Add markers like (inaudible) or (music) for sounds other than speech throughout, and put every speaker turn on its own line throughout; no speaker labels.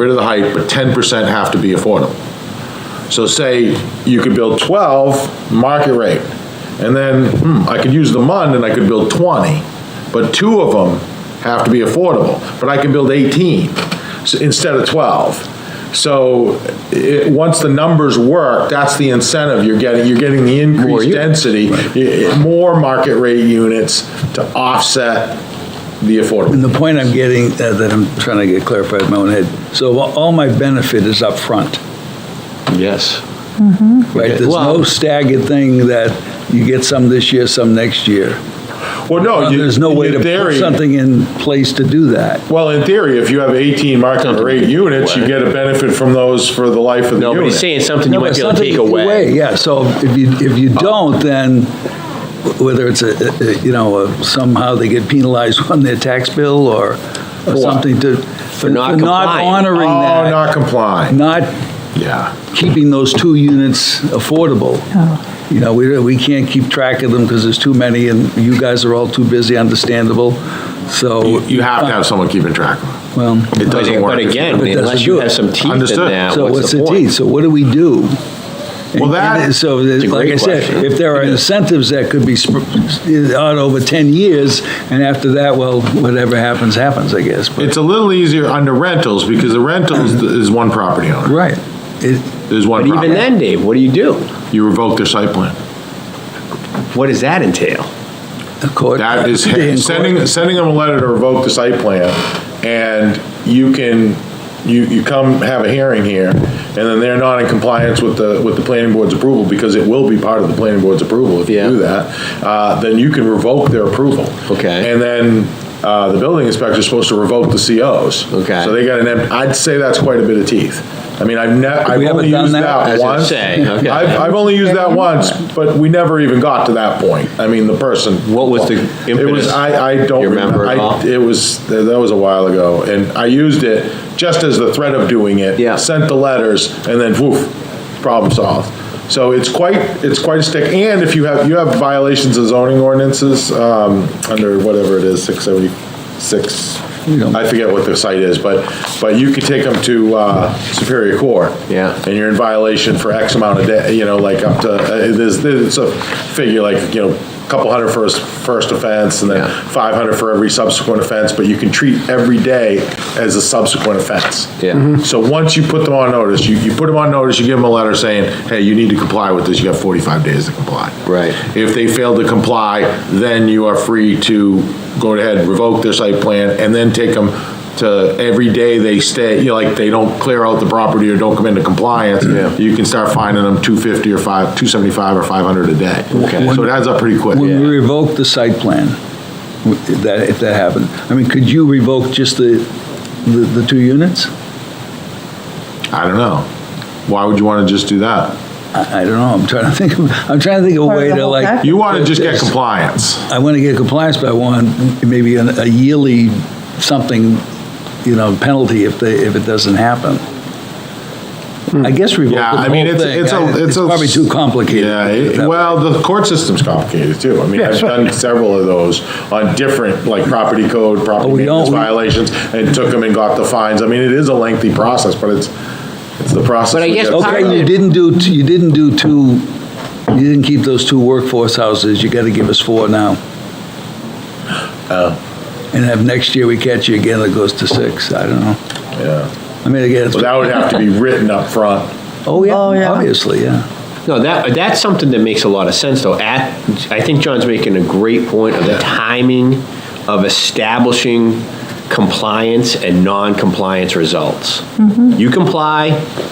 rid of the height, but ten percent have to be affordable. So say you could build twelve, market rate, and then, hmm, I could use the MUND and I could build twenty, but two of them have to be affordable, but I can build eighteen s- instead of twelve. So, it, once the numbers work, that's the incentive you're getting, you're getting the increased density, i- i- more market rate units to offset the affordable.
And the point I'm getting, uh, that I'm trying to get clarified in my own head, so a- all my benefit is up front, Mm-hmm.
Yes.
right? There's no
Well-
staggered thing that you get some this year, some next year.
Well, no, Oh, you-
There's no way
in
to put
theory-
something in place to do that.
Well, in theory, if you have 18 market rate units, you get a benefit from those for the life of the
No, but
unit.
he's saying something you
No,
might
but
be able to
something
take away. Oh.
Yeah, so if you, if you don't, then whether it's a, a- you know, a- somehow they get penalized (laughs) on their tax bill or or something to, for
not
not
complying.
honoring
Oh,
that,
not complying,
not
yeah.
keeping those two units affordable. You know, we, we can't keep track of them because there's too many and you guys are all too busy, understandable, so.
You you have to have someone keeping track of it.
Well,
It
But
doesn't work.
but
if you
again,
don't.
But it doesn't
unless you
do
have
it.
some teeth in
Understood.
that,
so
what's the
deed?
point?
So what do we do?
Well, that-
And So,
a
like
great
I said,
question.
if there are incentives that could be sp- out over 10 years, and after that, well, whatever happens, happens, I guess, but,
It's a little easier under rentals, because the rentals is one property owner,
right. It-
there's one
But even
property.
then, Dave, what do you do?
You revoke their site plan.
What does that entail?
the court-
(laughs)
That is,
in
(laughs)
court-
sending, sending them a letter to revoke the site plan, and you can, you, you come have a hearing here, and then they're not in compliance with the, with the planning board's approval, because it will be part of the planning board's approval if you do
Yeah.
that, uh, then you can revoke their approval.
Okay.
And then, uh, the building inspector's supposed to revoke the COs.
Okay.
So they got an, em- I'd say that's quite a bit of teeth. I mean, I've ne, I've
We haven't
only
done
used
that?
that
As it
once.
say, okay.
I've, I've only used that once, but we never even got to that point. I mean, the person.
What was the
It was,
impetus?
I, I don't
You remember
remember.
at all?
I- It was, that was a while ago, and I used it just as the threat of doing it.
Yeah.
Sent the letters, and then woof, problem solved. So it's quite, it's quite a stick, and if you have, you have violations of zoning ordinances, um, under whatever it is, six seventy-six,
don't-
I forget what the site is, but, but you could take them to, uh, Superior Court.
Yeah.
And you're in violation for X amount of day, you know, like up to, uh, there's, there's a figure like, you know, a couple hundred for his first offense, and
Yeah.
then 500 for every subsequent offense, but you can treat every day as a subsequent offense.
Yeah. Mhm.
So once you put them on notice, you, you put them on notice, you give them a letter saying, hey, you need to comply with this, you got 45 days to comply.
Right.
If they fail to comply, then you are free to go ahead, revoke their site plan, and then take them to every day they stay, you know, like they don't clear out the property or don't come into compliance, you can start finding them 250 or 5, 275 or 500 a day.
Okay.
So it adds up pretty quick.
When we revoke the site plan, if that, if that happened, I mean, could you revoke just the, the the two units?
I don't know. Why would you want to just do that?
I I don't know, I'm trying to think, of I'm trying to think of a
Part of
way
the
to
whole
like.
package.
You want to just get compliance.
I want to get compliance, but I want maybe an- a yearly something, you know, penalty if they, if it doesn't happen. I guess
Hmm.
revoke the
Yeah, I
whole
mean,
thing.
it's, it's
I-
a,
It's
it's a.
probably too complicated.
Yeah, it- well, the court system's complicated too. I mean, I've done several of those on different, like property code, property
Oh, we
maintenance
don't- we-
violations, and took them and got the fines. I mean, it is a lengthy process, but it's, it's the process.
But I
we
guess
get
part
through.
Okay, you didn't do, t- you didn't do two, you didn't keep those two workforce houses, you got to give us four now.
Oh.
And if next year we catch you again, it goes to six, I don't know.
Yeah.
I mean, again, it's,
So that would have to be written up front.
oh,
Oh,
yeah,
yeah.
obviously, yeah.
No, that, that's something that makes a lot of sense, though. At, I think John's making a great point of the timing of establishing compliance and non-compliance results. You comply,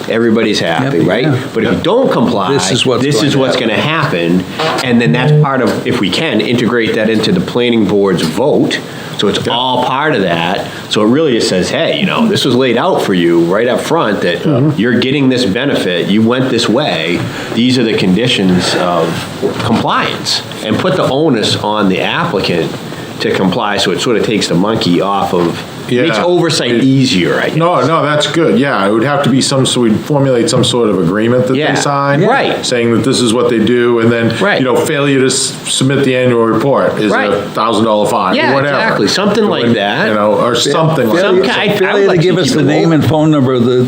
everybody's
Mm-hmm.
happy,
Yep,
right?
yeah.
But if you don't comply,
This is what's
this
going
is
to
what's gonna happen, and then that's part of, if we can, integrate that into the planning board's vote, so it's all part of that, so it really just says, hey, you know, this was laid out for you right up front, that uh, you're getting this benefit, you went this way, these are the conditions of compliance, and put the onus on the applicant to comply, so it sort of takes the monkey off of Makes
Yeah.
oversight easier, I guess.
No, no, that's good, yeah, it would have to be some, so we'd formulate some sort of agreement that
Yeah,
they sign.
right.
Saying that this is what they do, and then,
Right.
you know, failure to s- submit the annual report is
Right.
a thousand dollar fine,
Yeah,
or whatever.
exactly, something like that.
You know, or something like that.
Some kind- I- I would
Failure to
like to
give
keep
us
it
the
low.
name and phone number of the